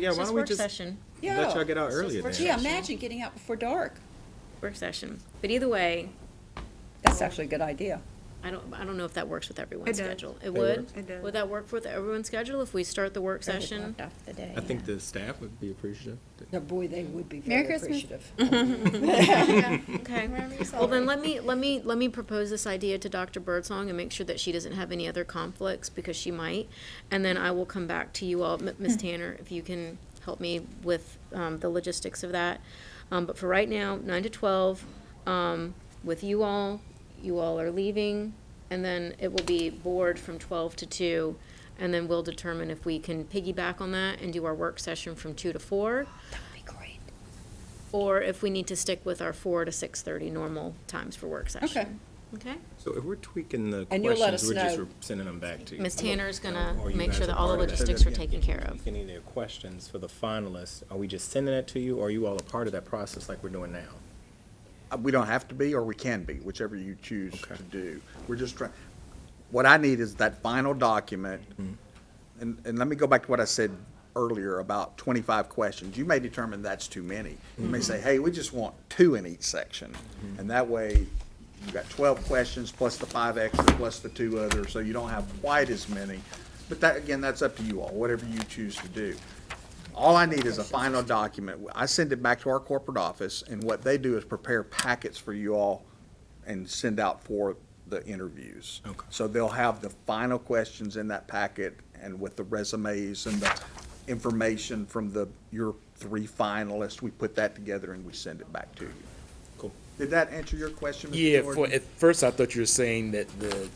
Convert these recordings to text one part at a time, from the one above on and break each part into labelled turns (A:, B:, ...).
A: Yeah,
B: It's
A: why
B: just
A: don't we
B: work
A: just
B: session,
A: let y'all get out
C: It's just
A: earlier
C: work
A: then?
B: session.
C: Yeah, imagine getting out before dark.
B: work session. But either way,
C: That's actually a good idea.
B: I don't, I don't know if that works with everyone's
D: It does.
B: schedule. It would?
A: works.
D: It does.
B: Would that work with everyone's schedule if we start the work session?
D: Blocked off the day,
A: I think
D: yeah.
A: the staff would be appreciative.
E: Now, boy, they would be
D: Merry
E: very
D: Christmas.
E: appreciative.
B: Okay. Well, then let me, let me, let me propose this idea to Dr. Birdsong and make sure that she doesn't have any other conflicts because she might. And then I will come back to you all, M- Ms. Tanner, if you can help me with, um, the logistics of that. Um, but for right now, nine to twelve, um, with you all, you all are leaving. And then it will be board from twelve to two. And then we'll determine if we can piggyback on that and do our work session from two to four
E: That would be great.
B: or if we need to stick with our four to six thirty normal times for work session. Okay.
A: So if we're tweaking the
E: And you'll let
A: questions, we're
E: us
A: just
E: know.
A: re- sending them back to you.
B: Ms. Tanner's gonna
F: Or you
B: make sure
F: guys
B: that
F: are
B: all the
F: part of that.
B: logistics are taken care of.
A: Any of their questions for the finalists, are we just sending that to you, or are you all a part of that process like we're doing now?
G: Uh, We don't have to be, or we can be, whichever you choose
A: Okay.
G: to do. We're just trying, what I need is that final document. And, and let me go back to what I said earlier about twenty-five questions. You may determine that's too many. You may say, hey, we just want two in each section. And that way, you've got twelve questions plus the five extra, plus the two others, so you don't have quite as many. But that, again, that's up to you all, whatever you choose to do. All I need is a final document. I send it back to our corporate office, and what they do is prepare packets for you all and send out for the interviews.
A: Okay.
G: So they'll have the final questions in that packet and with the resumes and the information from the, your three finalists, we put that together and we send it back to you.
A: Cool.
G: Did that answer your question, Mr.
F: Yeah,
G: Jordan?
F: for, at first I thought you were saying that the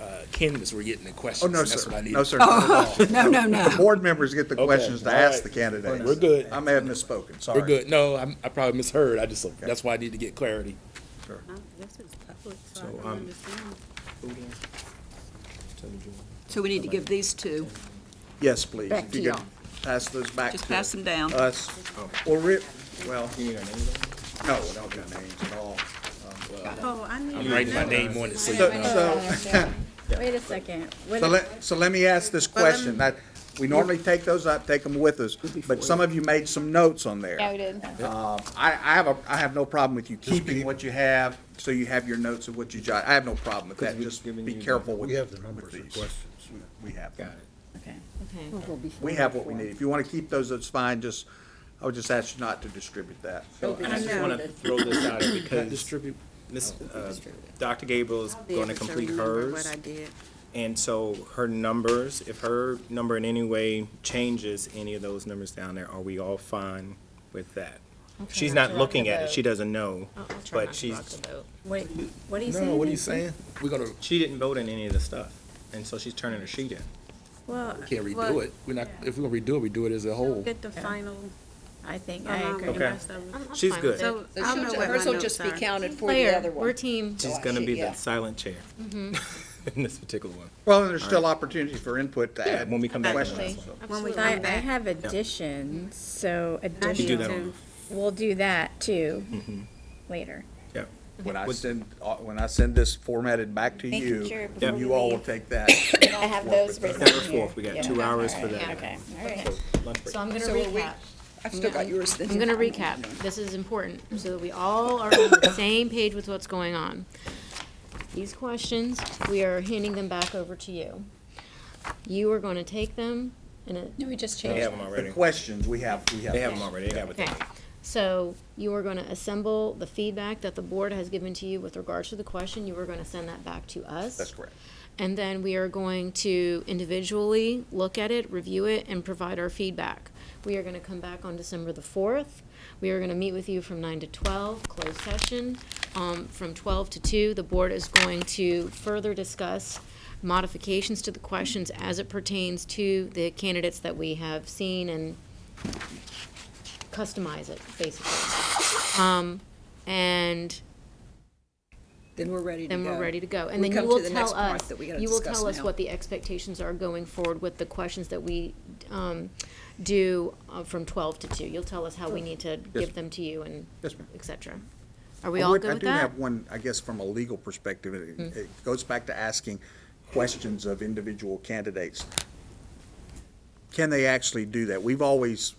F: uh, candidates were getting the
G: Oh,
F: questions.
G: no,
F: and that's
G: sir.
F: what I needed.
G: No, sir. not at all.
E: No, Oh, no,
G: The
E: no.
G: Board members get the
F: Okay,
G: questions to
F: all
G: ask
F: right.
G: the candidates.
F: We're good.
G: I may have misspoken, sorry.
F: We're good. No, I'm- I probably misheard. I just, that's why I need to get clarity.
A: So, um,
E: So we need to give these two,
G: Yes, please.
E: Back
G: If you
E: to
G: could
E: y'all.
G: Pass those back to.
E: just pass them down.
G: Us, or Rip, well. No, we don't got names at all.
D: Oh, I need.
F: I'm writing my name on it. so you
G: So,
F: know.
G: so,
D: Wait a second. Wait
G: so
D: a-
G: let, so let me ask this question, that, we normally take those up, take them with us, but some of you made some notes on there.
D: Yeah, we did.
G: Um, I, I have a, I have no problem with you keeping what you have, so you have your notes of what you jot, I have no problem with that,
A: we've
G: just
A: given
G: be
A: you the-
G: careful with.
H: We have the
G: with
H: numbers of
G: these.
H: questions.
G: We have.
A: got it.
D: Okay.
B: Okay.
G: We have what we need, if you wanna keep those, that's fine, just, I would just ask you not to distribute that.
A: I just want to throw this out because Miss,
D: Oh,
A: uh, Dr. Gabriel's going to complete hers. And so her numbers, if her number in any way changes any of those numbers down there, are we all fine with that? She's
B: not to
A: not
B: rock
A: looking
B: the
A: at it,
B: boat.
A: she doesn't know,
B: I'll- I'll try not
A: but
B: to
A: she's,
B: rock the boat.
D: Wait, what do you say?
F: No, what are you saying? We're gonna,
A: she didn't vote in any of the stuff, and so she's turning her sheet in.
D: Oh, Well.
F: can't redo it. Oh. We're not, if we're gonna redo it, we do it as a whole.
I: Get the final.
D: I think, I agree.
A: Okay.
B: I'm- I'm
A: She's
B: fine
A: good.
B: with it.
I: So I'll know what my
C: Hers will
I: notes
C: just be
I: are.
C: counted for the
B: Claire,
C: other one.
B: we're team.
A: Oh, She's gonna be
E: Yeah.
A: the silent chair
B: Mm-hmm.
A: in this particular one.
G: Well, and there's still opportunities for input to
A: Yeah,
G: add
A: when we come back. on that.
G: questions.
I: When we
D: I,
I: come
D: I
I: back.
D: have additions, so
I: I
A: You do
I: do
A: that
D: additions,
A: on,
I: too.
D: we'll do that too, later.
A: yeah.
G: When I send, uh, when I send this formatted back to
C: Thank you,
G: you,
C: Jared,
G: then
C: before
G: you
C: we
G: all will
C: leave.
G: take that.
D: I have those written
A: September
D: here.
A: fourth, we got
D: Yeah.
A: two hours for
D: Alright,
A: that.
D: Okay, all right.
A: Lunch break.
B: So I'm gonna
E: So are we-
B: recap.
E: I've still got yours.
B: I'm gonna recap. This is important, so that we all are on the same page with what's going on. These questions, we are handing them back over to you. You are gonna take them and it.
D: No, we just
A: They
D: changed.
A: have them
G: The
A: already,
G: questions, we have, we have.
A: they have them already, they have it.
B: Okay, so you are gonna assemble the feedback that the board has given to you with regards to the question, you are gonna send that back to us.
G: That's correct.
B: And then we are going to individually look at it, review it, and provide our feedback. We are gonna come back on December the fourth, we are gonna meet with you from nine to twelve, closed session. Um, from twelve to two, the board is going to further discuss modifications to the questions as it pertains to the candidates that we have seen and customize it, basically. Um, and
E: Then we're ready to go.
B: then we're ready to go. And
E: We
B: then
E: come
B: you
E: to
B: will
E: the next
B: tell
E: part
B: us,
E: that we gotta
B: you will
E: discuss
B: tell us
E: now.
B: what the expectations are going forward with the questions that we, um, do uh, from twelve to two. You'll tell us how we need to give them to you and
G: Yes, ma'am. Oh,
B: et cetera. Are we all good with
G: I do
B: that? Hmm.
G: have one, I guess, from a legal perspective, it, it goes back to asking questions of individual candidates. can they actually do that? We've always